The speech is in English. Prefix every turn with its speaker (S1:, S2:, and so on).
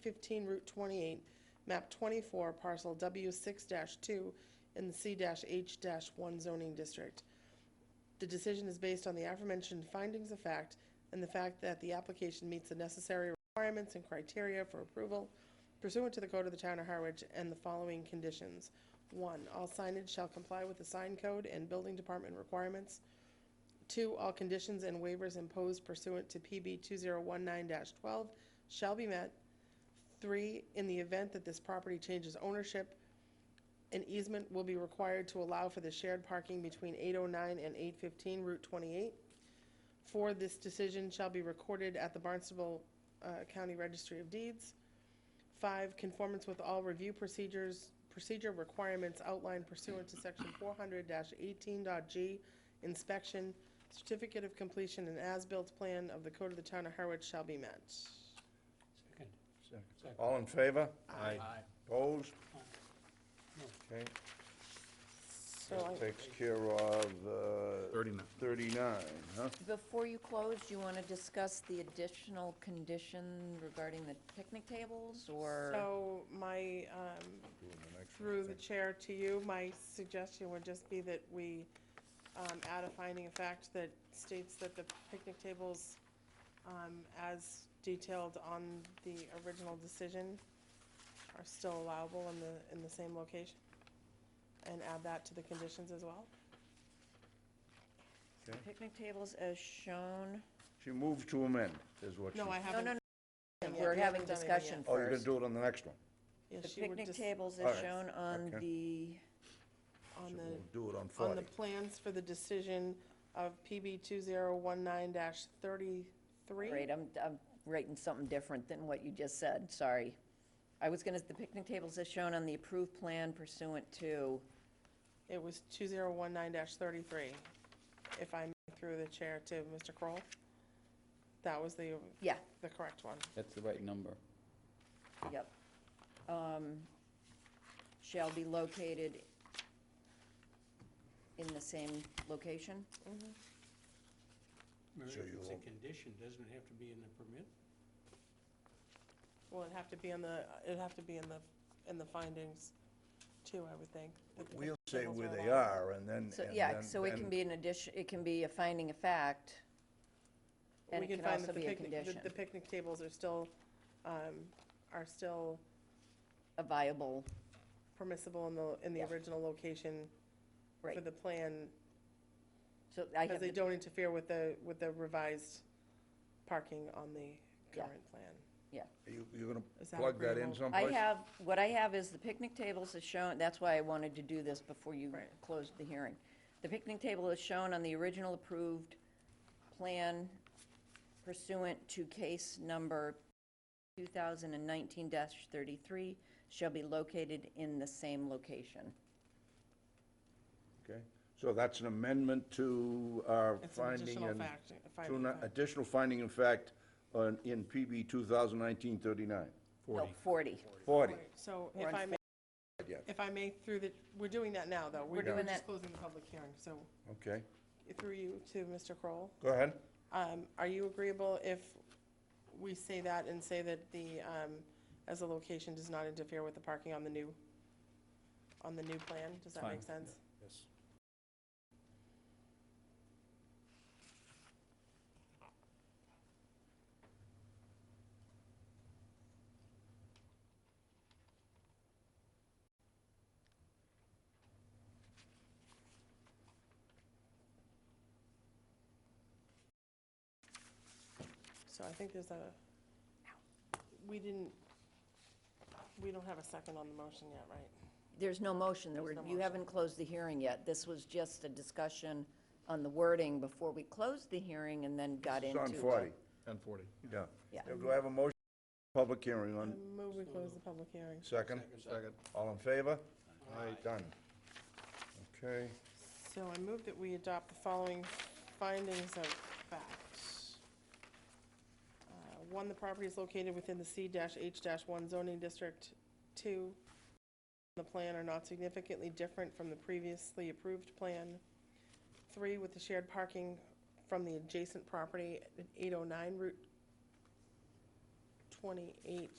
S1: fifteen Route twenty-eight, map twenty-four, parcel W six two, in the C H one zoning district. The decision is based on the aforementioned findings of fact and the fact that the application meets the necessary requirements and criteria for approval pursuant to the code of the town of Harwich and the following conditions. One, all signage shall comply with the sign code and building department requirements. Two, all conditions and waivers imposed pursuant to PB 2019-12 shall be met. Three, in the event that this property changes ownership, an easement will be required to allow for the shared parking between 809 and 815 Route 28. Four, this decision shall be recorded at the Barnstable uh, County Registry of Deeds. Five, conformance with all review procedures, procedure requirements outlined pursuant to section four hundred eighteen G, inspection, certificate of completion, and as-built plan of the code of the town of Harwich shall be met.
S2: Second. Second.
S3: All in favor?
S1: Aye.
S3: Opposed?
S2: Aye. No.
S3: Okay,
S1: So
S3: that
S1: I,
S3: takes care of uh,
S4: 39.
S3: 39, huh?
S5: Before you close, do you want to discuss the additional condition regarding the picnic tables, or?
S1: so my, um,
S3: Doing the next one, I
S1: through the
S3: think.
S1: chair to you, my suggestion would just be that we, um, add a finding of fact that states that the picnic tables, um, as detailed on the original decision are still allowable in the, in the same location. And add that to the conditions as well.
S5: Picnic tables as shown?
S3: She moved to amend, is what she...
S1: No, I
S5: No,
S1: haven't.
S5: no, no,
S1: yeah,
S5: we're
S1: we haven't done anything
S5: having
S1: yet.
S5: discussion
S3: Oh, you're gonna
S5: first.
S3: do it on the next one?
S1: Yeah,
S5: The
S1: she would
S5: picnic
S1: just-
S5: tables
S3: All
S5: as
S3: right,
S5: shown on
S3: okay.
S5: the,
S1: On
S3: So
S1: the
S3: We'll do it on
S1: on
S3: 40.
S1: the plans for the decision of PB 2019-33.
S5: great, I'm, I'm writing something different than what you just said, sorry. I was gonna, the picnic tables as shown on the approved plan pursuant to,
S1: It was 2019-33, if I may, through the chair to Mr. Kroll. That was the,
S5: yeah,
S1: the correct one.
S6: That's the right number.
S5: yep. Um, Shall be located in the same location?
S2: Mary,
S3: So
S2: if
S3: you
S2: it's a
S3: won't-
S2: condition, doesn't it have to be in the permit?
S1: Well, it'd have to be in the, it'd have to be in the, in the findings too, I would think. that the
S3: We'll
S1: picnic
S3: say
S1: tables
S3: where
S1: were
S3: they
S1: allowed.
S3: are, and then...
S5: So,
S3: and
S5: yeah,
S3: then-
S5: so it can
S3: then-
S5: be an addition, it can be a finding of fact, and
S1: We
S5: it can
S1: find
S5: also
S1: that the
S5: be a
S1: picnic- that
S5: condition,
S1: The picnic tables are still, um, are still
S5: a viable,
S1: permissible in the, in the
S5: Yeah.
S1: original location for
S5: right.
S1: the plan
S5: So I
S1: Because
S5: have,
S1: they
S5: the-
S1: don't interfere with the, with the revised parking on the
S5: Yeah.
S1: current plan.
S3: You- You're gonna
S1: Is that
S3: plug that in
S1: agreeable?
S5: I
S3: someplace?
S5: have, what I have is the picnic tables is shown, that's why I wanted to do this before you
S1: Right.
S5: closed the hearing. The picnic table is shown on the original approved plan pursuant to case number 2019-33, shall be located in the same location.
S3: Okay, so that's an amendment to our
S1: It's an
S3: finding
S1: additional
S3: and...
S1: fact, a
S3: to
S1: finding
S3: an
S1: of fact.
S3: Additional finding in fact on- in PB 2019-39.
S5: No, 40.
S3: 40,
S1: So
S5: We're
S1: if
S5: on
S1: I may,
S3: yeah,
S1: if I may, through the, we're doing that now, though.
S5: We're doing
S1: just
S5: that.
S1: closing the public hearing, so
S3: okay.
S1: through you to Mr. Kroll.
S3: Go ahead.
S1: Um, Are you agreeable if we say that and say that the, um, as the location does not interfere with the parking on the new, on the new plan? Does that make sense?
S2: Yes.
S1: So I think there's a, we didn't, we don't have a second on the motion yet, right?
S5: There's no motion, there were,
S1: There's no
S5: you haven't closed the hearing yet. This was just a discussion on the wording before we closed the hearing and then got
S3: It's
S5: into.
S3: on 40,
S4: 1040.
S3: yeah.
S5: Yeah.
S3: Do I have a motion? Public hearing
S1: I
S3: on
S1: move we close the public hearing.
S3: second?
S4: Second.
S3: All in favor? Aye. Done. Okay,
S1: So I move that we adopt the following findings of fact. Uh, One, the property is located within the C-H-1 zoning district. Two, the plan are not significantly different from the previously approved plan. Three, with the shared parking from the oh adjacent property at 809 Route 28